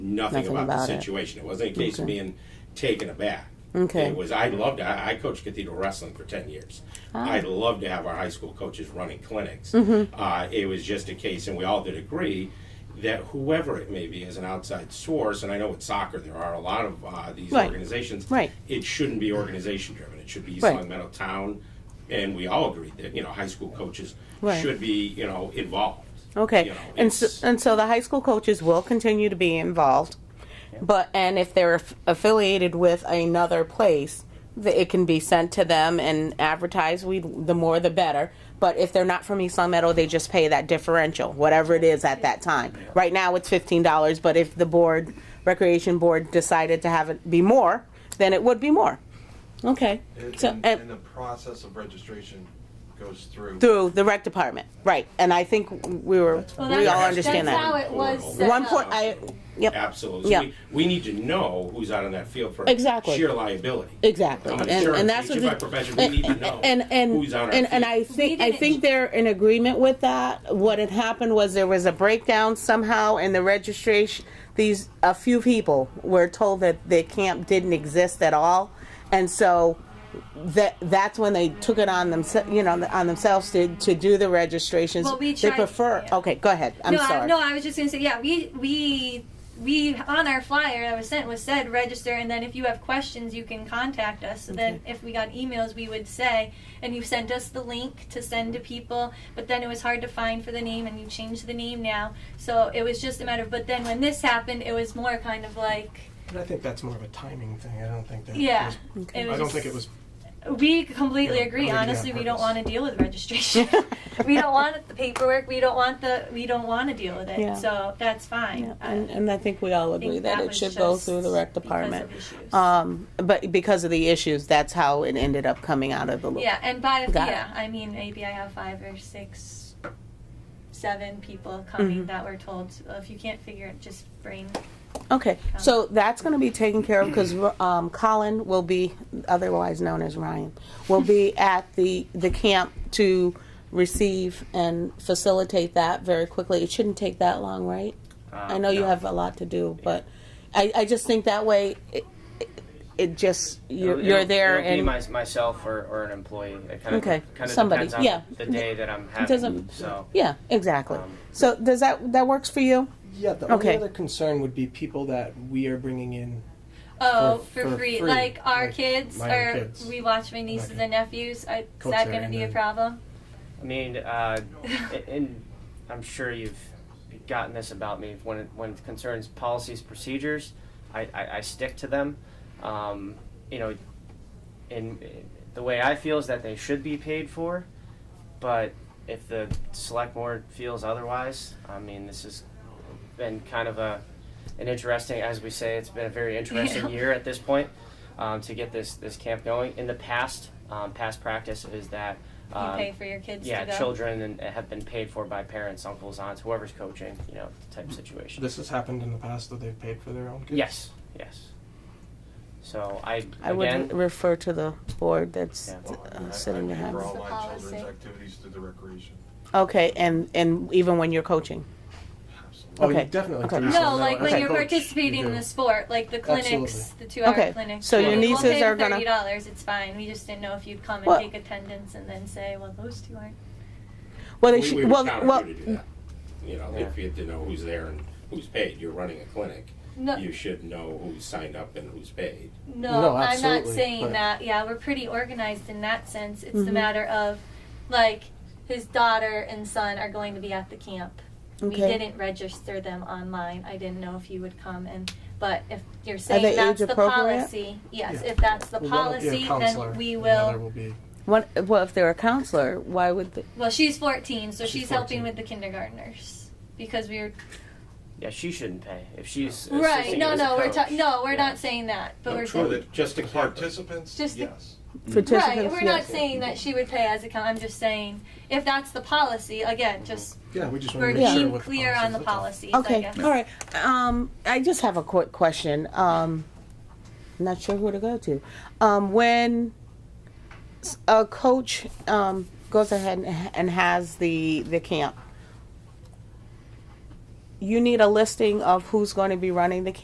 nothing, Nothing about, the about it. situation. It, wasn't a case of Okay. being taken aback. Okay. It was I loved I, I coached Cathedral Wrestling for ten years. Ah. I'd love to have our high school coaches running clinics. Mm-hmm. Uh, it was just a case, and we all did agree that whoever it may be is an outside source, and I know with soccer there are a lot of uh, these Right. organizations. Right. It shouldn't be organization driven. It should be East Right. Long Meadow Town, and we all agreed that you know high school coaches Right. should be you know involved. Okay, You know, and so, it's- and so the high school coaches will continue to be involved, but and if they're aff- affiliated with another place, th- it can be sent to them and advertised. We the more the better. But if they're not from East Long Meadow, they just pay that differential, whatever it is at that time. Right now, it's fifteen dollars. But if the board, recreation board, decided to have it be more, then it would be more. Okay. And, So, and, and- and the process of registration goes through. through the rec department, right? And I think we were Well, we that's- all understand that's that. how it was set One up. point, I yep. Absolutely. So Yeah. we, we need to know who's out on that field for Exactly. sheer liability. Exactly, I'm an and, and insurance that's what agent the, by profession. We need to know and and who's on our and, and I field. think We I didn't- think they're in agreement with that. What had happened was there was a breakdown somehow in the registration. These a few people were told that the camp didn't exist at all, and so that that's when they took it on themselves, you know, on themselves to to do the registrations. Well, we they tried- prefer. yeah. Okay, go ahead. I'm no, sorry. I, no, I was just gonna say, yeah, we we we on our flyer that was sent was said register, and then if you have questions, you can contact us. So then, if we got emails, we would say, and you sent us the link to send to people. But then it was hard to find for the name, and you changed the name now. So it was just a matter of. But then when this happened, it was more kind of like, But I think that's more of a timing thing. I don't think that. yeah. was- It was I don't just- think it was. We completely Yeah, agree. I think it's Honestly, on we don't purpose. want to deal with registration. we don't want the paperwork. We don't want the. We don't want to deal with it. Yeah. So that's fine. Yeah, I and, and I think we all agree think that, it was should go just through the rec because department. of issues. Um, but because of the issues, that's how it ended up coming out of the loop. yeah, and by Got it. yeah, I mean maybe I have five or six, seven people coming Mm-hmm. that were told "Well, if you can't figure it, just bring. Okay, so that's going to be taken care of because um, Colin will be, otherwise known as Ryan, will be at the the camp to receive and facilitate that very quickly. It shouldn't take that long, right? Uh, I know you have a lot to do, but I, I just think that way it, it, it just you're, It'll- you're it'll- there it'll be and my, myself or, or an employee. It kind of, Okay, kind of somebody, Depends on yeah. The day that I'm having. doesn't- so yeah, exactly. Um, So does that that works for you? Yeah, the Okay. only other concern would be people that we are bringing in. Oh, For- for, for free. free, Like our like kids, my or kids. we watch my nieces Okay. and nephews. I, is Coach that there going to and be a then- problem? I mean, uh, a- and I'm sure you've gotten this about me when it, when it concerns policies, procedures. I, I, I stick to them. Um, you know, in the way I feel is that they should be paid for, but if the select board feels otherwise, I mean, this has been kind of a an interesting, as we say, it's been a very interesting Yeah. year at this point um, to get this this camp going. In the past, um, past practice is that You um, pay for your kids yeah, to go. children and have been paid for by parents, uncles, aunts, whoever's coaching, you know, type of situation. This has happened in the past that they've paid for their own kids. Yes, yes. So I, I again, would refer to the board that's Yeah. Well, I uh, mean, I- sitting I pay behind. for us. all It's the my children's policy. activities through the recreation. Okay, and and even when you're coaching. Oh, Okay. you definitely. Okay. do No, something No, that like way. when Okay, you're coach, participating you in do. the sport, like the clinics, Absolutely. the two-hour Okay, clinics. so your We'll nieces pay the are gonna- Thirty dollars. It's fine. We just didn't know if you'd come and Well- take attendance and then say, well, those two aren't. Well, they We, we should, would well, count on well, mm. you to do that. You know, if you had to know who's there and who's paid, you're running a clinic. No, You should know who's signed up and who's paid. No, No, I'm not absolutely, saying but- that. Yeah, we're pretty organized in that sense. It's Mm-hmm. the matter of, like, his daughter and son are going to be at the camp. We Okay. didn't register them online. I didn't know if you would come and. But if you're they saying that's age the appropriate? policy, yes. Yeah. If that's the Well, one will be a policy, counselor, then we and will. the other will be. what, well, if they're a counselor, why would they, Well, she's 14, so she's, She's helping 14. with the kindergartners because we were yeah, she shouldn't pay if she's right. assisting No, as a no, we're coach. talking. No, we're Yeah. not saying that. But No, we're true. saying, But just to The clarify, Participants, Just the- yes. right. participants? We're yeah. not saying that she would pay as a. Con- I'm just saying if that's the policy. Again, just Yeah, we just we're want to make sure being what clear on the policies look like. policies. I Okay, guess. all right. Um, I just have a quick question. Um, not sure who to go to. Um, when s- a coach, um, goes ahead and, and has the, the camp, you need a listing of who's going to be running the camp.